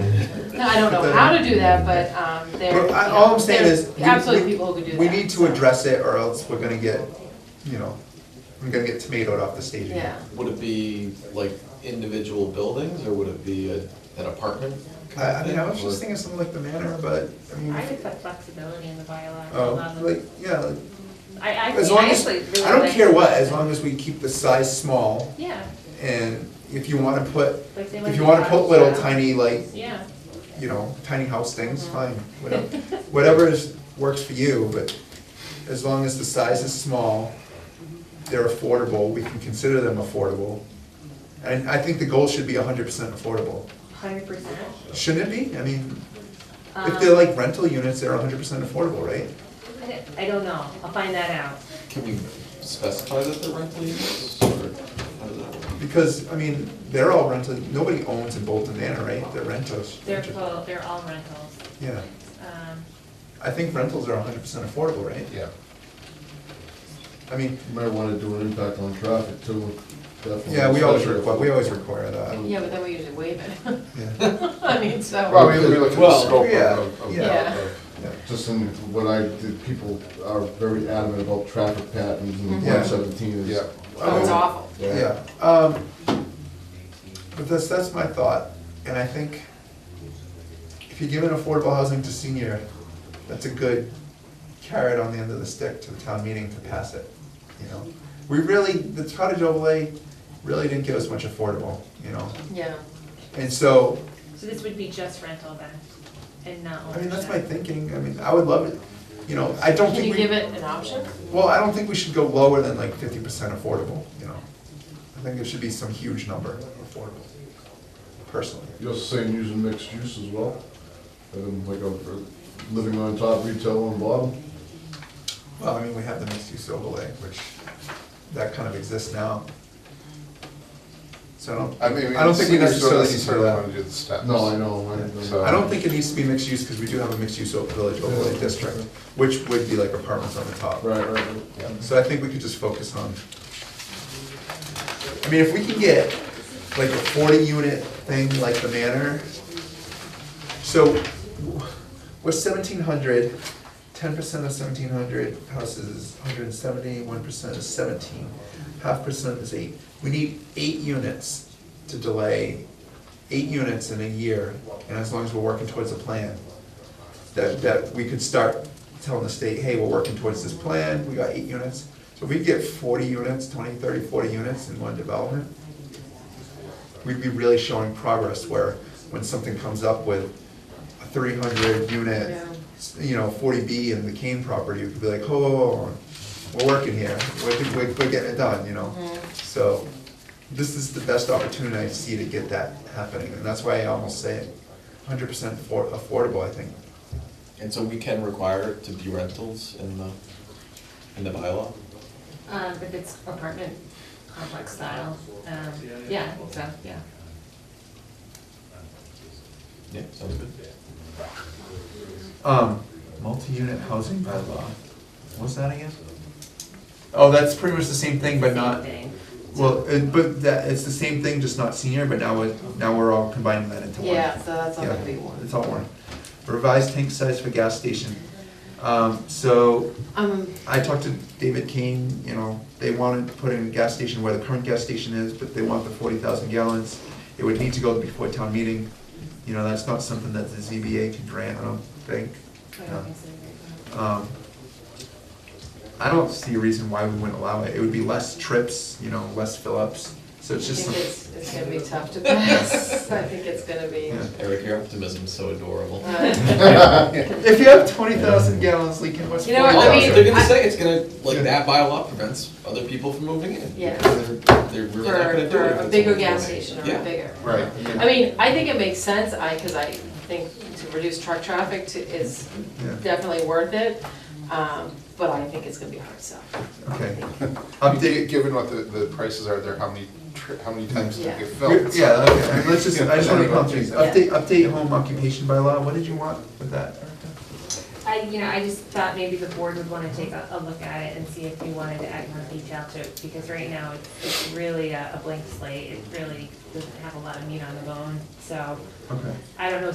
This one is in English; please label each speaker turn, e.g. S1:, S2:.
S1: No, I don't know how to do that, but, um, there.
S2: But I- all I'm saying
S1: there's
S2: is we-
S1: Absolutely
S2: we-
S1: people who could do that.
S2: We need to
S1: so,
S2: address it or else we're gonna get, you know, we're gonna get tomatoed off the stage.
S1: Yeah,
S2: again.
S3: Would it be like individual buildings, or would it be a- an apartment?
S2: I, I mean, I was
S3: Or-
S2: just thinking something like the manor, but, I mean,
S4: I would put flexibility in the bylaw.
S2: oh,
S4: allow them-
S2: like, yeah, like,
S4: I, I,
S2: as
S4: actually-
S2: long
S4: I
S2: as,
S4: actually really
S2: I don't
S4: like-
S2: care what, as long as we keep the size small
S4: Yeah,
S2: and if you wanna put,
S4: like they might
S2: if you
S4: be
S2: wanna put little
S4: bottles,
S2: tiny like,
S4: Yeah,
S2: you know, tiny house things, fine, whatever, whatever is, works for you, but as long as the size is small, they're affordable, we can consider them affordable. And I think the goal should be hundred percent affordable,
S4: hundred percent.
S2: shouldn't it be? I mean, if they're like rental units, they're hundred percent affordable, right?
S4: I don't know, I'll find that out.
S3: Can we specify that they're rental units, or how does that work?
S2: Because, I mean, they're all rental, nobody owns in Bolton Manor, right? They're rentals.
S4: They're full, they're all rentals.
S2: Yeah,
S4: Um,
S2: I think rentals are hundred percent affordable, right?
S5: Yeah,
S2: I mean,
S5: you might wanna do an impact on traffic too, definitely.
S2: yeah, we always
S5: Especially if-
S2: require, we always require that,
S1: yeah, but then we usually waive it,
S2: yeah.
S1: I mean, so.
S5: Well, we, we look at the
S3: Well,
S5: scope of,
S2: yeah,
S5: of- of,
S1: yeah. Oh,
S5: of-
S2: Yeah.
S5: just in what I, did, people are very adamant about traffic patterns and
S2: Mhm.
S5: one seventeen is.
S3: Yeah.
S1: Oh, it's awful.
S2: Yeah, um, but that's, that's my thought, and I think if you give an affordable housing to senior, that's a good carrot on the end of the stick to the town meeting to pass it, you know? We really, the cottage overlay really didn't give us much affordable, you know,
S1: Yeah,
S2: and so,
S4: So this would be just rental then, and not
S2: I mean, that's my
S4: ownership.
S2: thinking, I mean, I would love it, you know, I don't
S1: can you
S2: think
S1: give
S2: we,
S1: it an option?
S2: well, I don't think we should go lower than like fifty percent affordable, you know? I think it should be some huge number affordable, personally.
S5: You're saying using mixed use as well, and like a, living on top, retail on bottom,
S2: Well, I mean, we have the mixed use overlay, which, that kind of exists now. So I don't,
S6: I mean,
S2: I don't think we
S6: seniors
S2: necessarily
S6: don't
S2: need to
S6: necessarily
S2: that.
S6: want to do the steps.
S5: no, I know, I know.
S6: So-
S2: I don't think it needs to be mixed use, because we do have a mixed use o- village overlay district, which would be like apartments on the top.
S5: Right, right, right.
S2: So I think we could just focus on, I mean, if we can get like a forty unit thing like the manor, so we're seventeen hundred, ten percent of seventeen hundred houses is hundred and seventy, one percent is seventeen, half percent is eight. We need eight units to delay, eight units in a year, and as long as we're working towards a plan, that, that we could start telling the state, hey, we're working towards this plan, we got eight units. So if we get forty units, 20, 30, 40 units in one development, we'd be really showing progress where when something comes up with a three hundred unit, s- you know, forty B in the Kane property, we could be like, oh, oh, oh, we're working here, we're, we're, we're getting it done, you know? So, this is the best opportunity I see to get that happening, and that's why I almost say it, hundred percent affordable, I think.
S3: And so we can require it to be rentals in the, in the bylaw?
S4: Um, if it's apartment complex style, um, yeah, I think so, yeah.
S3: Yeah, sounds good.
S2: Um, multi-unit housing bylaw, what's that again? Oh, that's pretty much the same thing, but not,
S4: Same thing.
S2: well, it, but that, it's the same thing, just not senior, but now it, now we're all combining that into one.
S1: Yeah, so that's all
S2: Yeah,
S1: gonna be one.
S2: It's all one. Revised tank size for gas station. Um, so
S1: Um,
S2: I talked to David Kane, you know, they wanted to put in a gas station where the current gas station is, but they want the forty thousand gallons. It would need to go before town meeting, you know, that's not something that the ZBA can grant, I don't think.
S4: I don't consider it,
S2: Um, I don't see a reason why we wouldn't allow it, it would be less trips, you know, less fill-ups, so
S1: Um, I
S2: it's just,
S1: think
S2: some-
S1: it's, it's gonna be tough to pass, I think it's gonna be.
S2: Yeah.
S3: Eric, your optimism's so adorable.
S1: uh,
S2: if you have twenty thousand gallons leaking, what's
S1: You
S2: forty
S1: know what, I
S2: thousand?
S3: Well,
S1: mean,
S3: they're gonna
S1: I-
S3: say it's gonna, like, that bylaw prevents other people from moving in.
S1: Yeah.
S3: Because They're, they're really not
S1: For,
S3: gonna do
S1: for
S3: it. if
S1: a
S3: it's
S1: bigger
S3: only
S1: gas
S3: one.
S1: station or
S3: Yeah.
S1: a bigger.
S5: Right.
S1: I mean, I think it makes sense, I, cause I think to reduce truck traffic to, is
S2: Yeah.
S1: definitely worth it, um, but I think it's gonna be a hard sell.
S2: Okay,
S6: I mean,
S2: update,
S6: gi- Given what the, the prices are there, how many, tri- how many times do
S1: Yeah.
S6: they get
S2: We're-
S6: filled?
S2: Yeah, okay, I mean, let's just, I just wanna
S6: Yeah.
S2: come through, these. update, update home occupation by law, what did you want with that?
S4: but- I, you know, I just thought maybe the board would wanna take a, a look at it and see if you wanted to add more detail to it, because right now it's, it's really a, a blank slate, it really doesn't have a lot of meat on the bone, so
S2: Okay.
S4: I don't know